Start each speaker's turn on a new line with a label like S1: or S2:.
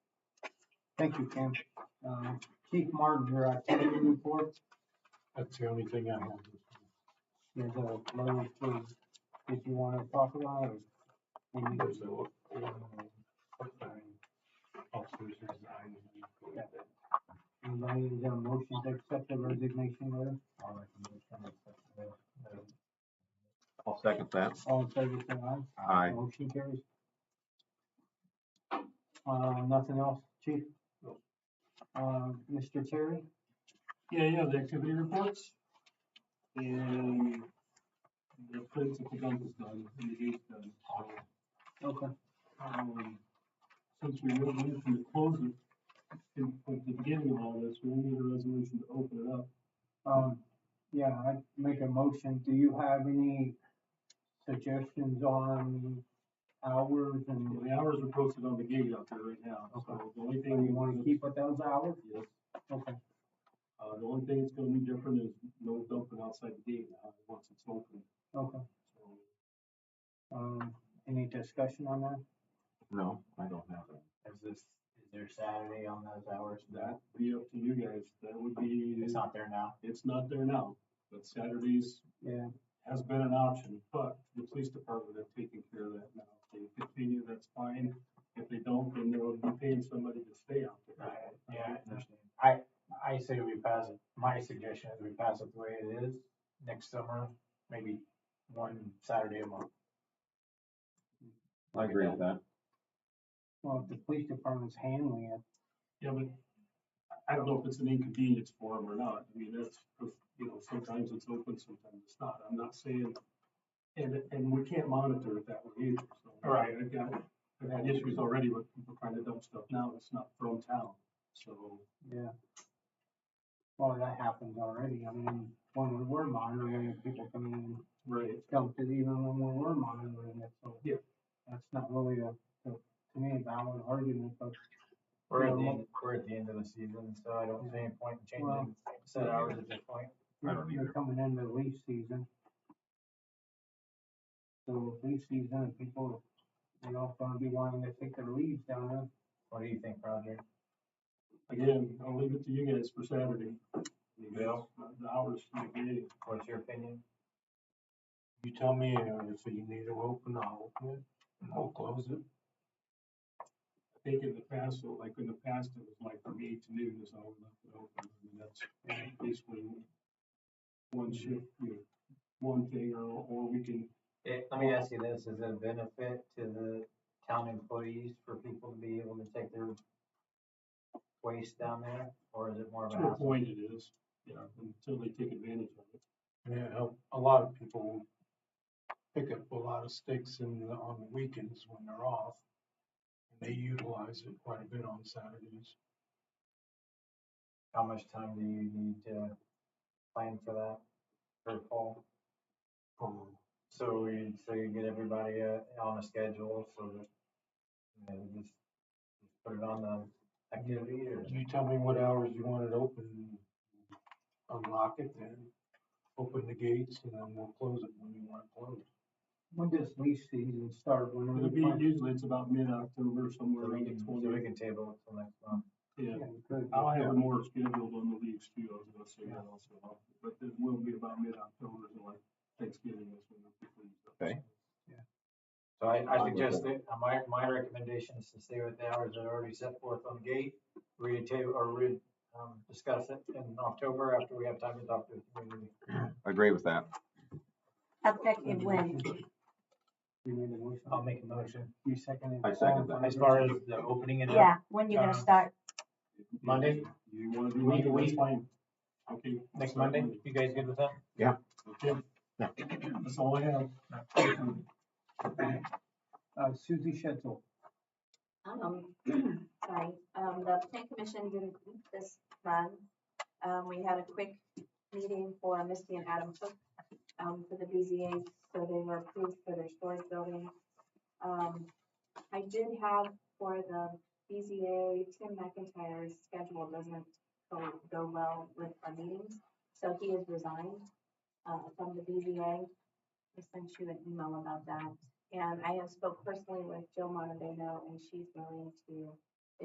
S1: Thank you, Cam. Uh, Keith Martin, your activity report,
S2: That's the only thing I have.
S1: there's a load of things that you want to talk about or? we need to-
S2: There's a, um, part-time officers resigning.
S1: Yeah. Anybody is there a motion to accept the resignation letter?
S3: I'll second that.
S1: All in favor, say aye.
S3: Aye.
S1: Motion carries. Uh, nothing else, chief?
S2: No.
S1: Uh, Mr. Terry?
S2: Yeah, you have the activity reports. And the prints of the gun is done, and the gate's done.
S1: Okay.
S2: Um, Since we moved in from the closing, in- at the beginning of all this, we need a resolution to open it up.
S1: Um, yeah, I make a motion. Do you have any suggestions on hours and
S2: The hours are posted on the gate out there right now, so the only thing we
S1: you
S2: wanted
S1: wanna
S2: to
S1: keep at those hours?
S2: Yes.
S1: Okay,
S2: Uh, the only thing that's gonna be different is no dumping outside the gate now, once it's open.
S1: okay.
S2: So,
S1: Um, any discussion on that?
S3: No, I don't have it.
S4: Is this, is there Saturday on those hours?
S2: That'd be up to you guys, that would be,
S4: It's not there now?
S2: it's not there now, but Saturdays
S1: Yeah,
S2: has been an option, but the police department have taken care of that now. If they continue, that's fine, if they don't, then they'll be paying somebody to stay out there.
S4: Yeah, I understand. I, I say we pass it, my suggestion is we pass it the way it is, next summer, maybe one Saturday a month.
S3: I agree with that.
S1: well, if the police department's handling it,
S2: Yeah, but I- I don't know if it's an inconvenience for them or not. I mean, that's, you know, sometimes it's open, sometimes it's not. I'm not saying, and, and we can't monitor it that way either, so.
S4: Right.
S2: I've got, I've had issues already with people trying to dump stuff now, it's not from town, so.
S1: yeah. Well, that happens already. I mean, when we were monitoring, people come in and
S2: Right.
S1: dumped it even when we were monitoring it, so.
S2: Yeah.
S1: That's not really a, a- to me, a valid argument, but
S4: We're at the,
S1: Yeah.
S4: end- we're at the end of the season, so I don't see any point in
S1: Well-
S4: changing set hours at this point.
S3: I
S1: You're
S3: don't
S1: you're
S3: either.
S1: coming into leaf season. So leaf season, people, they all gonna be wanting to take their leaves down there.
S4: What do you think, Roger?
S2: Again, I'll leave it to you guys for Saturday. You guys,
S4: Bill?
S2: The hours from the beginning.
S4: What's your opinion?
S2: You tell me if you need to open, I'll open it, and I'll close it. I think in the past, so like in the past, it was like from eight to noon is all we left it open, and that's basically one shift, you know, one thing, or, or we can,
S4: Eh, let me ask you this, is it a benefit to the town employees for people to be able to take their waste down there, or is it more of a
S2: to a
S4: hassle?
S2: point it is, you know, until they take advantage of it. Yeah, a lot of people pick up a lot of sticks in, on the weekends when they're off, and they utilize it quite a bit on Saturdays.
S4: How much time do you need to plan for that, for fall?
S2: Um,
S4: So we, so you get everybody, uh, on a schedule, so that, you know, you just just put it on the activity, or?
S2: You tell me what hours you want it open, and unlock it, then open the gates, and then we'll close it when you want it closed.
S1: When does leaf season start? When are
S2: It'll
S1: we
S2: be,
S1: planting?
S2: usually it's about mid-October, somewhere
S4: So we
S2: around
S4: can,
S2: the
S4: so we
S2: twentieth.
S4: can table it till next month.
S2: Yeah,
S1: Yeah, we could.
S2: I'll have it more scheduled on the leaves too, I was gonna say that also, but it will be about mid-October, so like Thanksgiving is when the leaves.
S3: Okay.
S4: So I, I
S3: Fine with
S4: suggest that, uh, my, my recommendation is to stay with the hours that are already set forth on the gate, read table, or read, um, discuss it in October after we have time to talk to the community.
S3: I Agree with that.
S5: Effective when?
S1: You made a motion.
S4: I'll make a motion.
S1: You second it.
S3: I second that.
S4: As far as the opening and the
S5: Yeah, when you
S4: Uh,
S5: gonna start?
S4: Monday,
S2: You wanna do
S4: We-
S2: Monday,
S4: we-
S2: that's fine. Okay.
S4: next Monday, you guys good with that?
S2: Okay. That's all I have.
S1: Uh, Susie Shetzel.
S6: Um, sorry, um, the plan commission didn't meet this month. Um, we had a quick meeting for Misty and Adam Cook, um, for the BZA, so they were approved for their storage building. Um, I did have for the BZA, Tim McIntyre's schedule doesn't go, go well with our meetings, so he has resigned, uh, from the BZA. I sent you an email about that. And I have spoke personally with Jill Montevino, and she's willing to